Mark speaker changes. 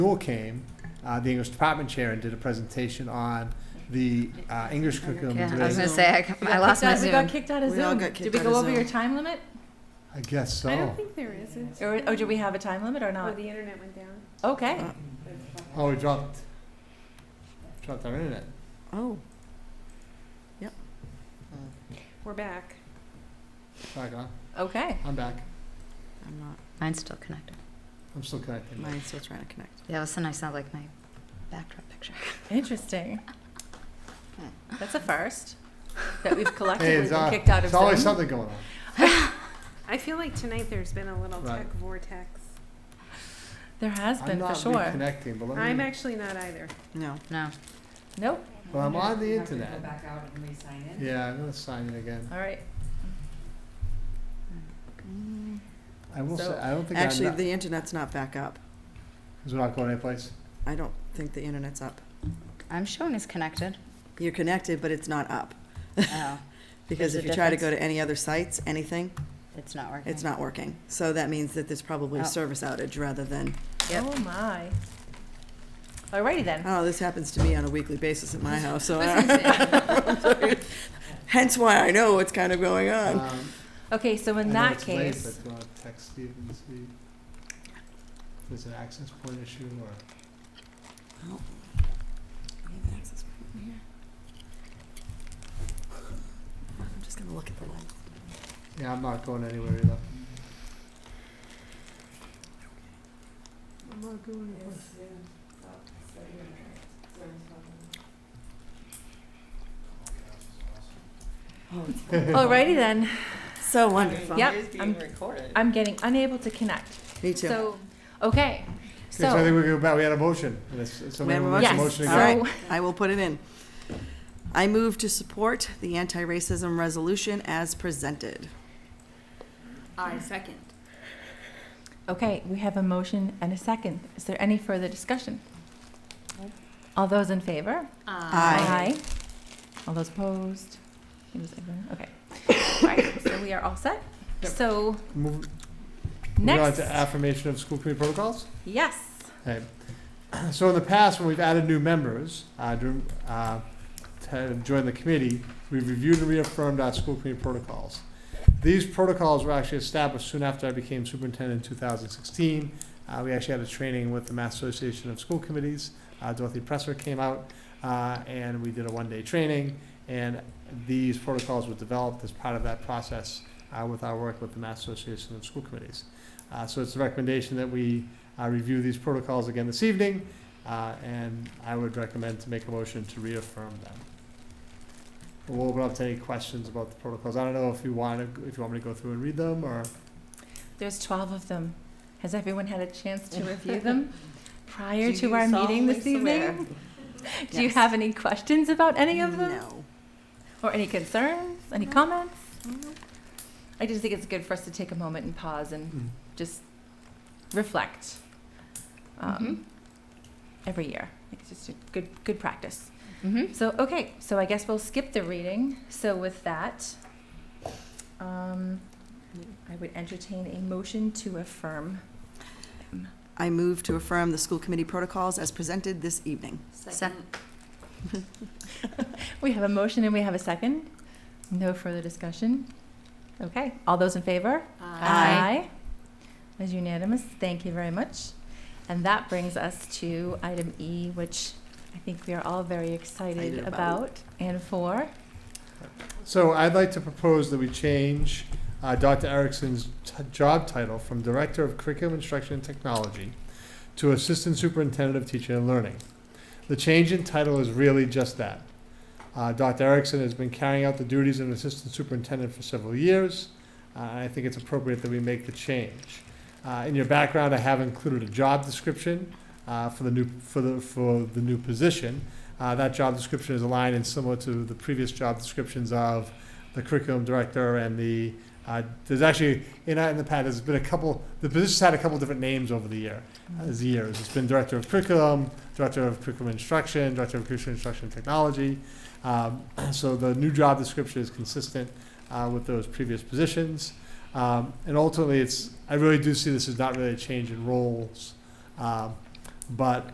Speaker 1: Newell came, uh, the English department chair, and did a presentation on the uh, English curriculum. in
Speaker 2: Yeah, I was
Speaker 1: today's-
Speaker 2: gonna say, I,
Speaker 3: We
Speaker 2: I
Speaker 3: got
Speaker 2: lost
Speaker 3: kicked
Speaker 2: my
Speaker 3: out- We got
Speaker 2: Zoom.
Speaker 3: kicked out of Zoom.
Speaker 4: We all got kicked
Speaker 3: Did we
Speaker 4: out
Speaker 3: go
Speaker 4: of
Speaker 3: over your
Speaker 4: Zoom.
Speaker 3: time limit?
Speaker 1: I guess
Speaker 5: I don't
Speaker 1: so.
Speaker 5: think there is. It's-
Speaker 3: Or, or do we have a time limit or
Speaker 5: Oh,
Speaker 3: not?
Speaker 5: the internet went down.
Speaker 3: Okay.
Speaker 4: Uh,
Speaker 1: Oh, we dropped, dropped our internet.
Speaker 4: Oh.
Speaker 5: We're back.
Speaker 1: Back on.
Speaker 3: Okay.
Speaker 1: I'm back.
Speaker 4: I'm not.
Speaker 2: Mine's still connected.
Speaker 1: I'm still connected.
Speaker 4: Mine's still trying to connect.
Speaker 2: Yeah, all of a sudden I sound like my backdrop picture.
Speaker 3: Interesting. That's a first that we've
Speaker 1: Hey,
Speaker 3: collectively
Speaker 1: it's,
Speaker 3: been
Speaker 1: uh,
Speaker 3: kicked out of
Speaker 1: it's always
Speaker 3: Zoom.
Speaker 1: something going on.
Speaker 5: I feel like tonight there's been a little
Speaker 1: Right.
Speaker 5: tech vortex.
Speaker 3: There has
Speaker 1: I'm
Speaker 3: been for
Speaker 1: not
Speaker 3: sure.
Speaker 1: reconnecting, but let
Speaker 5: I'm
Speaker 1: me,
Speaker 5: actually not either.
Speaker 4: No.
Speaker 2: No,
Speaker 3: Nope.
Speaker 1: but I'm on the internet.
Speaker 4: back out and re-sign
Speaker 1: Yeah, I'm gonna sign in again.
Speaker 3: All right.
Speaker 4: Mm.
Speaker 1: I will say,
Speaker 3: So-
Speaker 1: I don't think I'm,
Speaker 4: Actually,
Speaker 1: because
Speaker 4: the internet's not back up.
Speaker 1: we're not going anyplace.
Speaker 4: I don't think the internet's up.
Speaker 2: I'm showing it's connected.
Speaker 4: You're connected, but it's not up.
Speaker 2: Oh,
Speaker 4: Because
Speaker 2: There's a
Speaker 4: if you try to go
Speaker 2: difference?
Speaker 4: to any other sites, anything,
Speaker 2: it's not working.
Speaker 4: it's not working. So that means that there's probably
Speaker 2: Oh.
Speaker 4: a service outage rather than,
Speaker 2: Yep.
Speaker 3: Oh my. All righty then.
Speaker 4: oh, this happens to me on a weekly basis at my house, so. I- Hence why I know what's kind of going
Speaker 2: Oh.
Speaker 4: on.
Speaker 1: Um,
Speaker 3: Okay, so
Speaker 1: I
Speaker 3: in
Speaker 1: know
Speaker 3: that
Speaker 1: it's late,
Speaker 3: case,
Speaker 1: but do you wanna text Steve and see if there's an access point issue or?
Speaker 4: I'm just gonna look at the light.
Speaker 1: Yeah, I'm not going anywhere either. I'm not going anywhere.
Speaker 3: all righty then.
Speaker 4: So Oh, wonderful.
Speaker 3: Yep. I'm, I'm getting unable to connect.
Speaker 4: Me too.
Speaker 3: So, okay.
Speaker 1: Okay, so I
Speaker 3: So,
Speaker 1: think we go back, we had a motion, and it's, it's
Speaker 4: We
Speaker 1: somebody
Speaker 4: have a
Speaker 1: who makes a
Speaker 3: yes.
Speaker 1: motion
Speaker 4: All
Speaker 1: again.
Speaker 3: So,
Speaker 4: right. I will put it in. I move to support the anti-racism resolution as presented.
Speaker 6: I second.
Speaker 3: Okay, we have a motion and a second. Is there any further discussion? All those in favor?
Speaker 4: Aye.
Speaker 3: All those opposed? It was everyone? Okay. All right, so we are all set. So
Speaker 1: Move- Moving on
Speaker 3: next,
Speaker 1: to affirmation of school committee protocols.
Speaker 3: yes.
Speaker 1: Okay. So in the past, when we've added new members uh, during, uh, to join the committee, we've reviewed and reaffirmed our school committee protocols. These protocols were actually established soon after I became superintendent in 2016. Uh, we actually had a training with the Mass Association of School Committees. Uh, Dorothy Presser came out uh, and we did a one-day training. And these protocols were developed as part of that process uh, with our work with the Mass Association of School Committees. Uh, so it's a recommendation that we I review these protocols again this evening, uh, and I would recommend to make a motion to reaffirm them. We'll open up to any questions about the protocols. I don't know if you want to, if you want me to go through and read them, or
Speaker 3: There's 12 of them. Has everyone had a chance to review them prior to our meeting this evening? Do you
Speaker 4: Yes.
Speaker 3: have any questions about any of them?
Speaker 4: No.
Speaker 3: Or any concerns, any
Speaker 4: No.
Speaker 3: comments? I just think it's good for us to take a moment and pause and just reflect um, every year. It's just a good good practice.
Speaker 2: hmm
Speaker 3: So okay, so I guess we'll skip the reading. So with that, um, I would entertain a motion to affirm.
Speaker 4: I move to affirm the school committee protocols as presented this evening.
Speaker 6: Second.
Speaker 3: We have a motion and we have a second. No further discussion. Okay, all those in favor?
Speaker 2: Aye.
Speaker 3: Aye. As unanimous, thank you very much. And that brings us to item E, which I think we are all very excited
Speaker 4: Excited about.
Speaker 3: about and for.
Speaker 1: So I'd like to propose that we change uh, Dr. Erickson's t- job title from Director of Curriculum Instruction and Technology to Assistant Superintendent of Teaching and Learning. The change in title is really just that. Uh, Dr. Erickson has been carrying out the duties of an Assistant Superintendent for several years. Uh, and I think it's appropriate that we make the change. Uh, In your background, I have included a job description uh, for the new, for the, for the new position. Uh, that job description is aligned and similar to the previous job descriptions of the curriculum director and the, uh, there's actually, in, in the past, there's been a couple, the position's had a couple different names over the year, as years. It's been director of curriculum, director of curriculum instruction, director of curriculum instruction technology. Um, so the new job description is consistent, uh, with those previous positions. Um, and ultimately, it's, I really do see this as not really a change in roles. Um, But